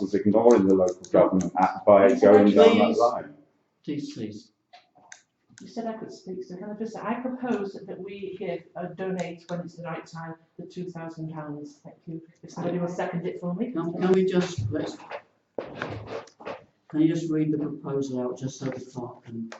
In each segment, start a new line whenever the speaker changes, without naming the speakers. was ignoring the Local Government Act by going down that line.
Please, please.
You said I could speak, so can I just, say I propose that we give, uh, donate when it's the right time, the two thousand pounds, thank you. If somebody will second it for me.
Can, can we just, let's, can you just read the proposal out just so the clerk can?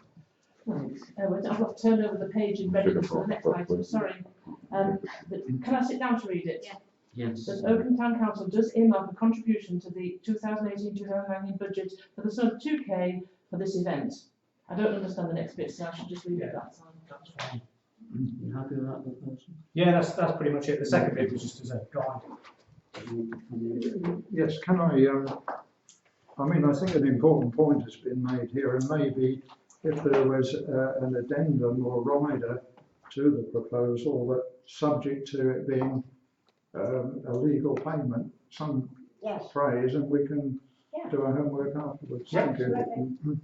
Right, uh, well, I've got to turn over the page and ready for the next item, sorry. Um, but can I sit down to read it?
Yeah.
Yes.
That Oakham Town Council does earmark a contribution to the 2018-2019 budget for the sum of two K for this event. I don't understand the next bit, so I should just leave it at that.
You happy with that proposal?
Yeah, that's, that's pretty much it. The second bit was just as a guide.
Yes, can I, um, I mean, I think an important point has been made here, and maybe if there was, uh, an addendum or rider to the proposal that subject to it being, um, a legal payment, some
Yes.
phrase, and we can
Yeah.
do our homework afterwards.
Yeah,
Thank you.
absolutely.
Mm.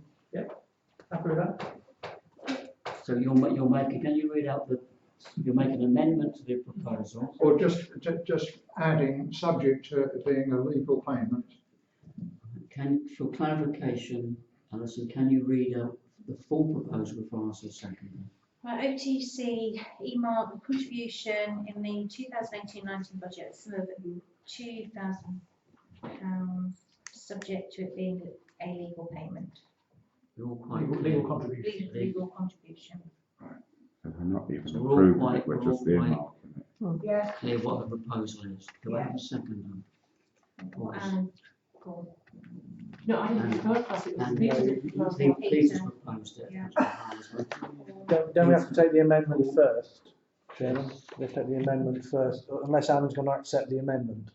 Happy with that?
So you'll, ma- you'll make, can you read out the, you'll make an amendment to the proposal?
Or just, ju- just adding, subject to it being a legal payment.
Can, for clarification, Alison, can you read out the full proposal before I say second?
Right, OTC earmark a contribution in the 2018-19 budget for two thousand pounds, subject to it being a legal payment,
You're all quite
Legal-
clear.
Legal contribution.
legal, legal contribution.
And we're not even
So we're all
approving
quite-
it, we're
we're all
just
quite-
earmarking it.
Yeah.
clear what the proposal is. Do I have a second?
And, cool.
No, I didn't vote, because it was
And
Peter's
uh,
proposal.
Pete- Pete has proposed it.
Yeah.
Don't, don't we have to take the amendment first, Chairman? We have to take the amendment first, unless Alan's going to accept the amendment.